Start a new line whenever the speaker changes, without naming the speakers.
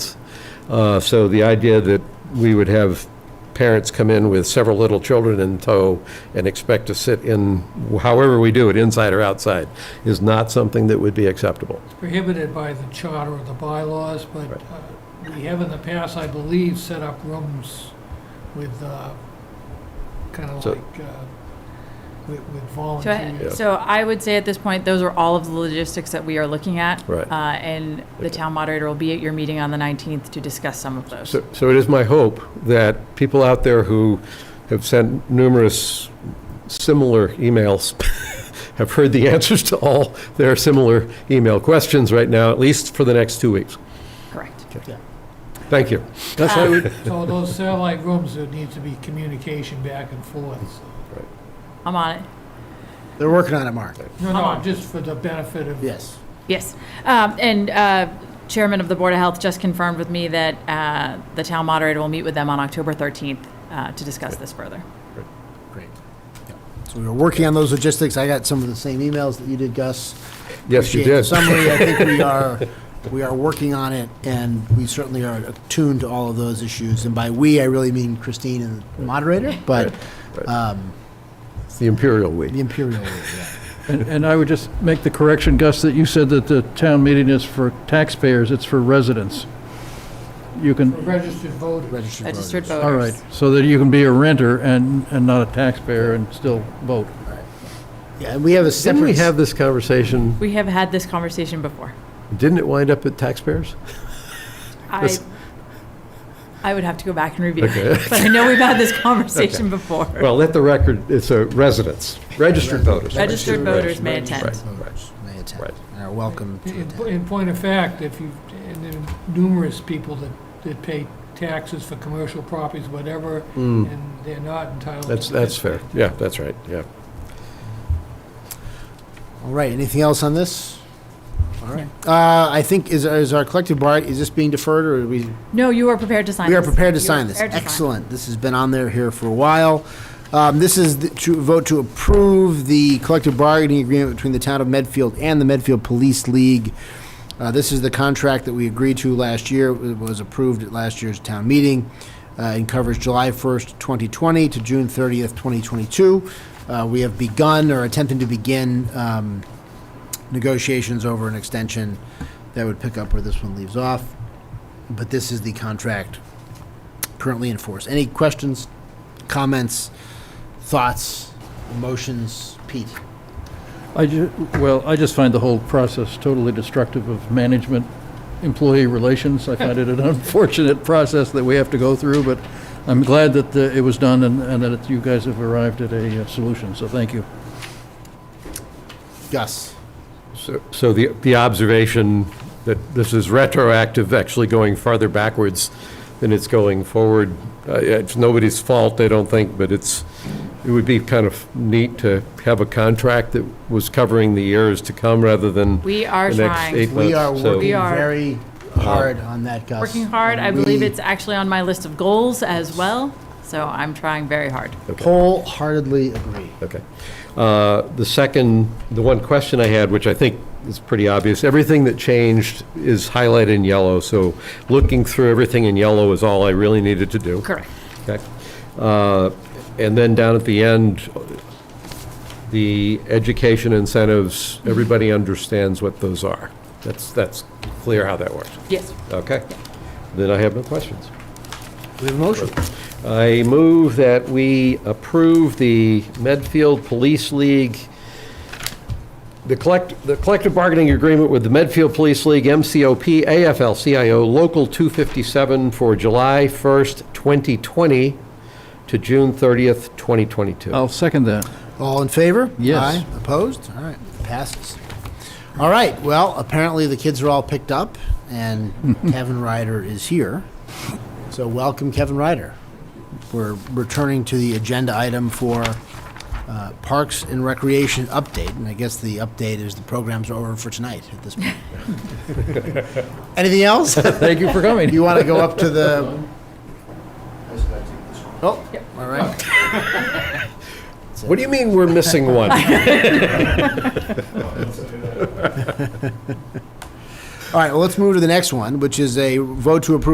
Uh, So the idea that we would have parents come in with several little children in tow and expect to sit in, however we do it, inside or outside, is not something that would be acceptable.
prohibited by the charter or the bylaws, but
Right.
uh, we have in the past, I believe, set up rooms with, kind of
So-
like, uh, with with
So I-
volunteers.
So I would say at this point, those are all of the logistics that we are looking at.
Right.
Uh, And the town moderator will be at your meeting on the 19th to discuss some of those.
So so it is my hope that people out there who have sent numerous similar emails have heard the answers to all their similar email questions right now, at least for the next two weeks.
Correct.
Thank you.
That's why we,
So those satellite rooms, there needs to be communication back and forth. so-
I'm on it.
they're working on it, Mark.
No, no, just for the benefit of.
Yes.
Yes. Um, And uh, Chairman of the Board of Health just confirmed with me that uh, the town moderator will meet with them on October 13th uh, to discuss this further.
Great. Yeah. So we were working on those logistics. I got some of the same emails that you did, Gus.
Yes, you
Appreciate the
did.
Summary, I think we are, we are working on it, and we certainly are attuned to all of those issues. And by "we," I really mean Christine and the moderator, but um,
It's the imperial we.
the Imperial, League, yeah.
And and I would just make the correction, Gus, that you said that the town meeting is for taxpayers, it's for residents. You can,
Registered voters.
registered voters.
Registered voters.
all right, so that you can be a renter and, and not a taxpayer and still vote.
Yeah, and we have a
Didn't we
separate,
have this conversation?
We have had this conversation before.
Didn't it wind up at taxpayers?
I,
Listen.
I would have to go back and review
Okay.
it, but I know we've had this conversation before.
Well, let the record, it's a residents, registered voters.
Registered voters may
Registered
attend.
voters may attend,
Right. Mm-hmm.
and are welcome to
In
attend.
in point of fact, if you, and there are numerous people that, that pay taxes for commercial properties, whatever, and they're not entitled.
Hmm. That's,
to
that's
participate.
fair. Yeah, that's right, yeah.
All right, anything else on this? All right. Uh, I think, is, is our collective bargaining, is this being deferred, or are we,
No, you are prepared to sign
we
this.
are prepared to
You
sign this?
prepared to sign.
Excellent, this has been on there here for a while. Um, This is the- to vote to approve the collective bargaining agreement between the town of Medfield and the Medfield Police League. Uh, This is the contract that we agreed to last year, it was approved at last year's town meeting, uh, and covers July 1st, 2020 to June 30th, 2022. Uh, We have begun, or attempting to begin, um, negotiations over an extension that would pick up where this one leaves off. But this is the contract currently in force. Any questions, comments, thoughts, emotions? Pete?
I ju, well, I just find the whole process totally destructive of management, employee relations. I find it an unfortunate process that we have to go through, but I'm glad that uh, it was done and and that you guys have arrived at a uh, solution, so thank you.
Gus?
So- So the, the observation that this is retroactive, actually going farther backwards than it's going forward, uh, it's nobody's fault, I don't think, but it's, it would be kind of neat to have a contract that was covering the years to come rather than
We
the
are
next eight
trying.
months.
We are
So-
working
We are-
very hard on that, Gus.
Working hard. I
And
believe
we
it's actually on my list of goals as well, so I'm trying very hard.
Wholeheartedly agree.
Okay. Uh, The second, the one question I had, which I think is pretty obvious, everything that changed is highlighted in yellow, so looking through everything in yellow is all I really needed to do.
Correct.
Okay. Uh, And then down at the end, the education incentives, everybody understands what those are. That's, that's clear how that works.
Yes.
Okay. Then I have no questions.
We have a motion.
I move that we approve the Medfield Police League, the collect, the collective bargaining agreement with the Medfield Police League, MCOP, AFL-CIO, Local 257 for July 1st, 2020 to June 30th, 2022.
I'll second that.
All in favor?
Yes.
Aye. Opposed? All right, passes. All right, well, apparently the kids are all picked up, and Kevin Ryder is here. So welcome, Kevin Ryder. We're returning to the agenda item for uh, Parks and Recreation update, and I guess the update is the programs are over for tonight at this point. Anything else?
Thank you for coming.
You want to go up to the? Oh, all right.
What do you mean we're missing one?
All right, well, let's move to the next one, which is a vote to approve